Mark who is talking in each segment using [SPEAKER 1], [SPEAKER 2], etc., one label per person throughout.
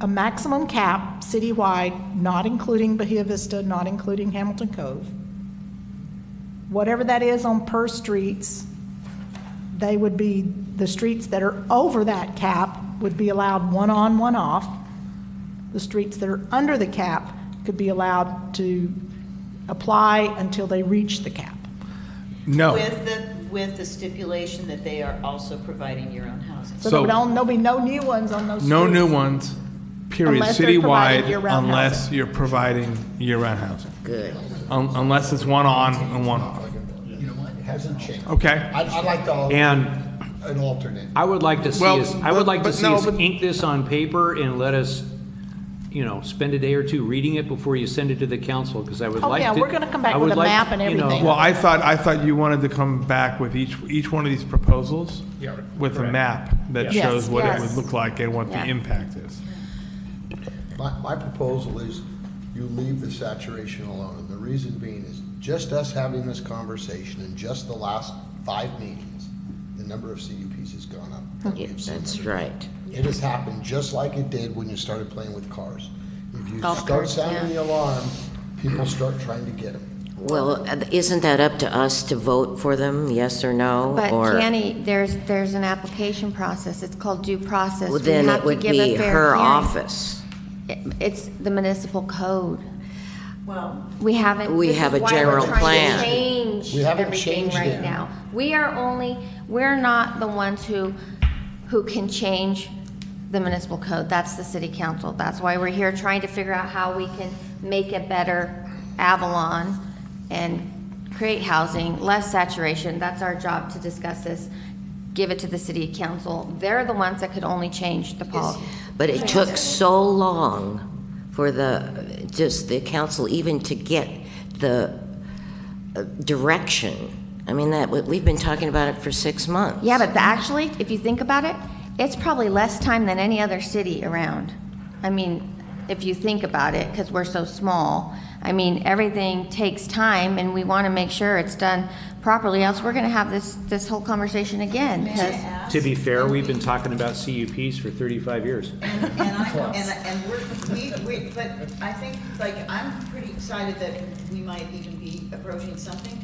[SPEAKER 1] a maximum cap citywide, not including Bahia Vista, not including Hamilton Cove. Whatever that is on per streets, they would be, the streets that are over that cap would be allowed one on, one off. The streets that are under the cap could be allowed to apply until they reach the cap.
[SPEAKER 2] Oh.
[SPEAKER 3] No,
[SPEAKER 4] With the, with the stipulation that they are also providing your own housing.
[SPEAKER 1] So
[SPEAKER 3] So-
[SPEAKER 1] there will be no new ones on those streets.
[SPEAKER 3] no new ones, period,
[SPEAKER 1] Unless they're providing
[SPEAKER 3] citywide,
[SPEAKER 1] year-round
[SPEAKER 3] unless you're providing year-round housing.
[SPEAKER 4] Good.
[SPEAKER 3] Un- Unless it's one on and one off.
[SPEAKER 5] You know what, it hasn't changed.
[SPEAKER 3] Okay.
[SPEAKER 5] I'd, I'd like to,
[SPEAKER 2] And
[SPEAKER 5] an alternate.
[SPEAKER 2] I would like to see
[SPEAKER 3] Well,
[SPEAKER 2] us, I would like
[SPEAKER 3] but- but
[SPEAKER 2] to see
[SPEAKER 3] no,
[SPEAKER 2] us
[SPEAKER 3] but-
[SPEAKER 2] ink this on paper and let us, you know, spend a day or two reading it before you send it to the council, because I would
[SPEAKER 1] Oh,
[SPEAKER 2] like to.
[SPEAKER 1] yeah, we're gonna come back
[SPEAKER 2] I
[SPEAKER 1] with
[SPEAKER 2] would
[SPEAKER 1] a
[SPEAKER 2] like,
[SPEAKER 1] map and
[SPEAKER 2] you know,
[SPEAKER 1] everything.
[SPEAKER 3] Well, I thought, I thought you wanted to come back with each, each one of these proposals with a map that
[SPEAKER 1] Yes,
[SPEAKER 3] shows what it
[SPEAKER 1] yes.
[SPEAKER 3] would look like and what the
[SPEAKER 4] Yeah.
[SPEAKER 3] impact is.
[SPEAKER 5] My, my proposal is you leave the saturation alone, and the reason being is just us having this conversation in just the last five meetings, the number of CUPs has gone up. that we've seen.
[SPEAKER 4] That's right.
[SPEAKER 5] It has happened just like it did when you started playing with cars. If you
[SPEAKER 4] Golf
[SPEAKER 5] start
[SPEAKER 4] carts,
[SPEAKER 5] sounding the
[SPEAKER 4] yeah.
[SPEAKER 5] alarm, people start trying to get them.
[SPEAKER 4] Well, isn't that up to us to vote for them, yes or no?
[SPEAKER 6] But
[SPEAKER 4] or-
[SPEAKER 6] Danny, there's, there's an application process, it's called due process.
[SPEAKER 4] Well,
[SPEAKER 6] We
[SPEAKER 4] Then
[SPEAKER 6] have
[SPEAKER 4] it
[SPEAKER 6] to
[SPEAKER 4] would
[SPEAKER 6] give a
[SPEAKER 4] be
[SPEAKER 6] fair
[SPEAKER 4] her
[SPEAKER 6] hearing.
[SPEAKER 4] office.
[SPEAKER 6] It- It's the municipal code.
[SPEAKER 4] Well.
[SPEAKER 6] We haven't.
[SPEAKER 4] We
[SPEAKER 6] this
[SPEAKER 4] have
[SPEAKER 6] is
[SPEAKER 4] a
[SPEAKER 6] why we're
[SPEAKER 4] general
[SPEAKER 6] trying to
[SPEAKER 4] plan.
[SPEAKER 6] Change
[SPEAKER 5] We haven't
[SPEAKER 6] everything
[SPEAKER 5] changed
[SPEAKER 6] right
[SPEAKER 5] it.
[SPEAKER 6] now. We are only, we're not the ones who, who can change the municipal code. That's the city council. That's why we're here, trying to figure out how we can make a better Avalon and create housing, less saturation. That's our job to discuss this. Give it to the city council. They're the ones that could only change the policy.
[SPEAKER 4] But it took so long for the, just the council even to get the uh, direction. I mean, that, we've been talking about it for six months.
[SPEAKER 6] Yeah, but the- actually, if you think about it, it's probably less time than any other city around. I mean, if you think about it, because we're so small. I mean, everything takes time, and we want to make sure it's done properly, else we're going to have this, this whole conversation again. 'cause-
[SPEAKER 2] To be fair, we've been talking about CUPs for 35 years.
[SPEAKER 7] And I, and, and we're, we, we, but I think, like, I'm pretty excited that we might even be approaching something.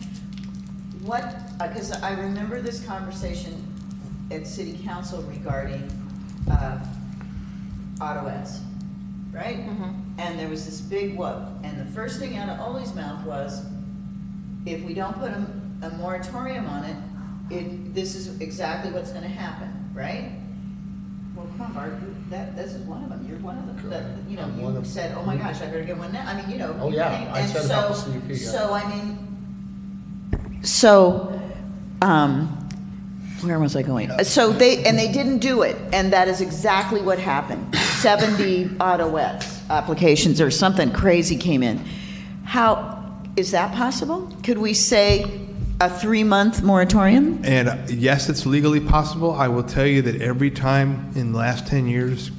[SPEAKER 7] What, because I remember this conversation at city council regarding, uh, auto ads, right? And there was this big whoop, and the first thing out of Ollie's mouth was, if we don't put a, a moratorium on it, it, this is exactly what's gonna happen, right? Well, come on, Bart, you- that, this is one of them, you're one of them, that, you
[SPEAKER 5] I'm one
[SPEAKER 7] know, you
[SPEAKER 5] of-
[SPEAKER 7] said, oh my gosh, I better get one now, I mean, you know.
[SPEAKER 5] Oh,
[SPEAKER 7] you
[SPEAKER 5] yeah,
[SPEAKER 7] think-
[SPEAKER 5] I
[SPEAKER 7] and
[SPEAKER 5] said about
[SPEAKER 7] so-
[SPEAKER 5] the CUP, yeah.
[SPEAKER 7] So, I mean. So, um, where was I going? Uh, So they, and they didn't do it, and that is exactly what happened. 70 Autoettes applications or something crazy came in. How, is that possible? Could we say a three-month moratorium?
[SPEAKER 3] And uh, yes, it's legally possible. I will tell you that every time in the last 10 years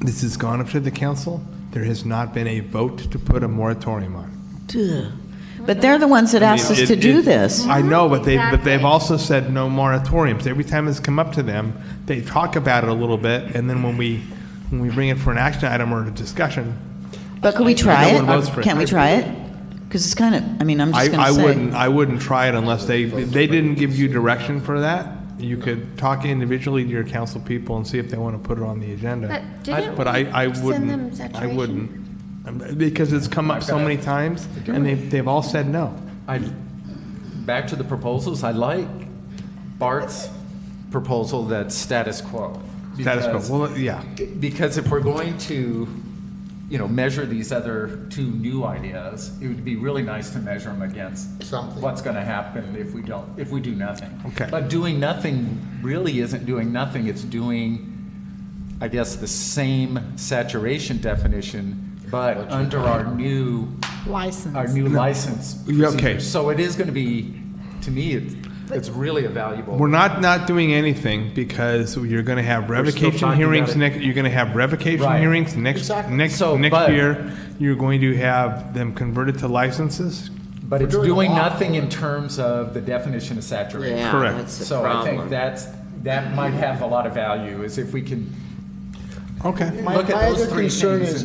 [SPEAKER 3] this has gone up to the council, there has not been a vote to put a moratorium on.
[SPEAKER 8] Ugh. But they're the ones that asked us
[SPEAKER 3] It-
[SPEAKER 8] to
[SPEAKER 3] it-
[SPEAKER 8] do
[SPEAKER 3] it-
[SPEAKER 8] this.
[SPEAKER 3] I know, but they, but they've
[SPEAKER 6] Exactly.
[SPEAKER 3] also said no moratoriums. Every time it's come up to them, they talk about it a little bit, and then when we, when we bring it for an action item or a discussion,
[SPEAKER 8] But could we try
[SPEAKER 3] No one votes for
[SPEAKER 8] it?
[SPEAKER 3] it.
[SPEAKER 8] Can we try it? Because it's kind of, I mean, I'm
[SPEAKER 3] I,
[SPEAKER 8] just
[SPEAKER 3] I
[SPEAKER 8] going to say.
[SPEAKER 3] wouldn't, I wouldn't try it unless they, they didn't give you direction for that. You could talk individually to your council people and see if they want to put it on the agenda.
[SPEAKER 6] But didn't
[SPEAKER 3] But I, I
[SPEAKER 6] we send them
[SPEAKER 3] wouldn't, I
[SPEAKER 6] saturation?
[SPEAKER 3] wouldn't. Um, Because it's come up so many times, and they've, they've all said no.
[SPEAKER 9] I, back to the proposals, I like Bart's proposal that's status quo.
[SPEAKER 3] Status
[SPEAKER 9] because-
[SPEAKER 3] quo, well, yeah.
[SPEAKER 9] Because if we're going to, you know, measure these other two new ideas, it would be really nice to measure them against
[SPEAKER 5] Something.
[SPEAKER 9] what's going to happen if we don't, if we do nothing.
[SPEAKER 3] Okay.
[SPEAKER 9] But doing nothing really isn't doing nothing, it's doing, I guess, the same saturation definition, but under our new
[SPEAKER 1] License.
[SPEAKER 9] our new license.
[SPEAKER 3] Yeah, okay.
[SPEAKER 9] procedures. So it is going to be, to me, it's, it's really a valuable.
[SPEAKER 3] We're not not doing anything because you're going to have revocation
[SPEAKER 2] talking
[SPEAKER 3] hearings
[SPEAKER 2] about it.
[SPEAKER 3] next. You're going to have revocation
[SPEAKER 9] Right.
[SPEAKER 3] hearings next
[SPEAKER 5] Exactly.
[SPEAKER 3] next
[SPEAKER 9] So,
[SPEAKER 3] next
[SPEAKER 9] but-
[SPEAKER 3] year. You're going to have them converted to licenses.
[SPEAKER 9] But it's
[SPEAKER 5] doing a
[SPEAKER 9] doing
[SPEAKER 5] lot.
[SPEAKER 9] nothing in terms of the definition of saturation.
[SPEAKER 4] Yeah,
[SPEAKER 3] Correct.
[SPEAKER 4] that's the
[SPEAKER 9] So I think
[SPEAKER 4] problem.
[SPEAKER 9] that's, that might have a lot of value, is if we can
[SPEAKER 10] Okay.
[SPEAKER 3] My,
[SPEAKER 5] Look at
[SPEAKER 3] my
[SPEAKER 5] those
[SPEAKER 3] other
[SPEAKER 5] three
[SPEAKER 3] concern
[SPEAKER 5] things
[SPEAKER 3] is,